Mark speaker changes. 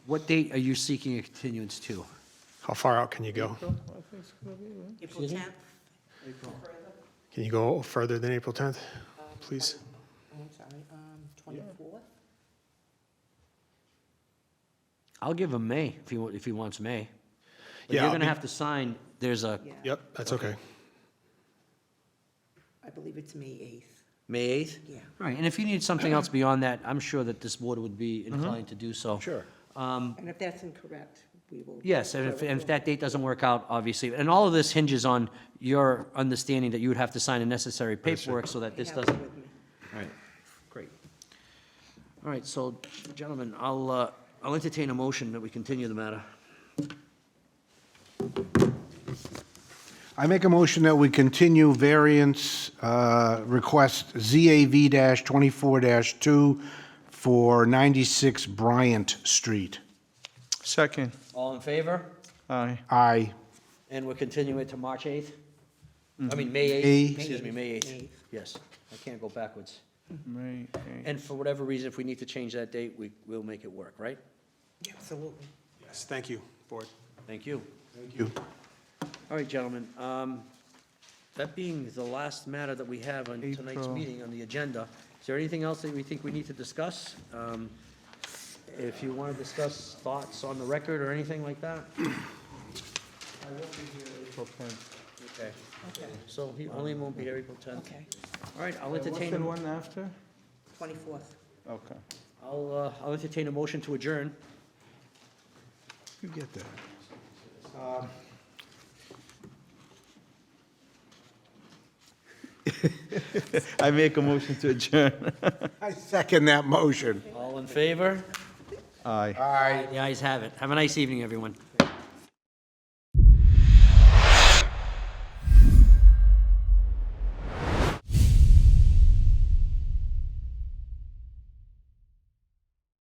Speaker 1: What date are you seeking a continuance to?
Speaker 2: How far out can you go?
Speaker 3: April 10th.
Speaker 2: Can you go further than April 10th, please?
Speaker 3: Um, I'm sorry, um, 24th?
Speaker 1: I'll give him May, if he, wa- if he wants May. But
Speaker 2: Yeah,
Speaker 1: you're
Speaker 2: I'll
Speaker 1: gonna
Speaker 2: be-
Speaker 1: have to sign, there's a,
Speaker 3: Yeah.
Speaker 2: Yep, that's okay.
Speaker 3: I believe it's May 8th,
Speaker 1: May 8th?
Speaker 3: yeah.
Speaker 1: Right, and if you need something else beyond that, I'm sure that this board would be inclined to do so.
Speaker 4: Sure.
Speaker 3: And if that's incorrect, we will.
Speaker 1: Um, Yes, and if, and if that date doesn't work out, obviously, and all of this hinges on your understanding that you would have to sign the necessary paperwork so that
Speaker 3: I
Speaker 1: this
Speaker 3: have it
Speaker 1: doesn't.
Speaker 3: with me.
Speaker 1: All right, great. All right, so gentlemen, I'll, uh, I'll entertain a motion that we continue the matter.
Speaker 4: I make a motion that we continue variance uh, request ZAV-24-2 for 96 Bryant Street.
Speaker 5: Second.
Speaker 1: All in favor?
Speaker 5: Aye.
Speaker 4: Aye.
Speaker 1: And we're continuing to March 8th? I mean, May 8th,
Speaker 4: May-
Speaker 1: excuse me, May 8th.
Speaker 3: May.
Speaker 1: Yes, I can't go backwards.
Speaker 5: May eighth.
Speaker 1: And for whatever reason, if we need to change that date, we will make it work, right?
Speaker 3: Absolutely.
Speaker 2: Yes, thank you, board.
Speaker 1: Thank you.
Speaker 4: Thank you.
Speaker 1: All right, gentlemen, um, that being the last matter that we have on tonight's
Speaker 5: April.
Speaker 1: meeting on the agenda, is there anything else that we think we need to discuss? Um, If you want to discuss thoughts on the record or anything like that?
Speaker 5: April tenth.
Speaker 1: Okay. So he only won't be here April 10th.
Speaker 3: Okay,
Speaker 1: All right, I'll
Speaker 5: What's
Speaker 1: entertain,
Speaker 5: the
Speaker 1: a-
Speaker 5: one after?
Speaker 3: 24th.
Speaker 5: Okay.
Speaker 1: I'll, uh, I'll entertain a motion to adjourn.
Speaker 4: You get that.
Speaker 5: I make a motion to adjourn.
Speaker 4: I second that motion.
Speaker 1: All in favor?
Speaker 5: Aye.
Speaker 4: Aye.
Speaker 1: The ayes have it. Have a nice evening, everyone.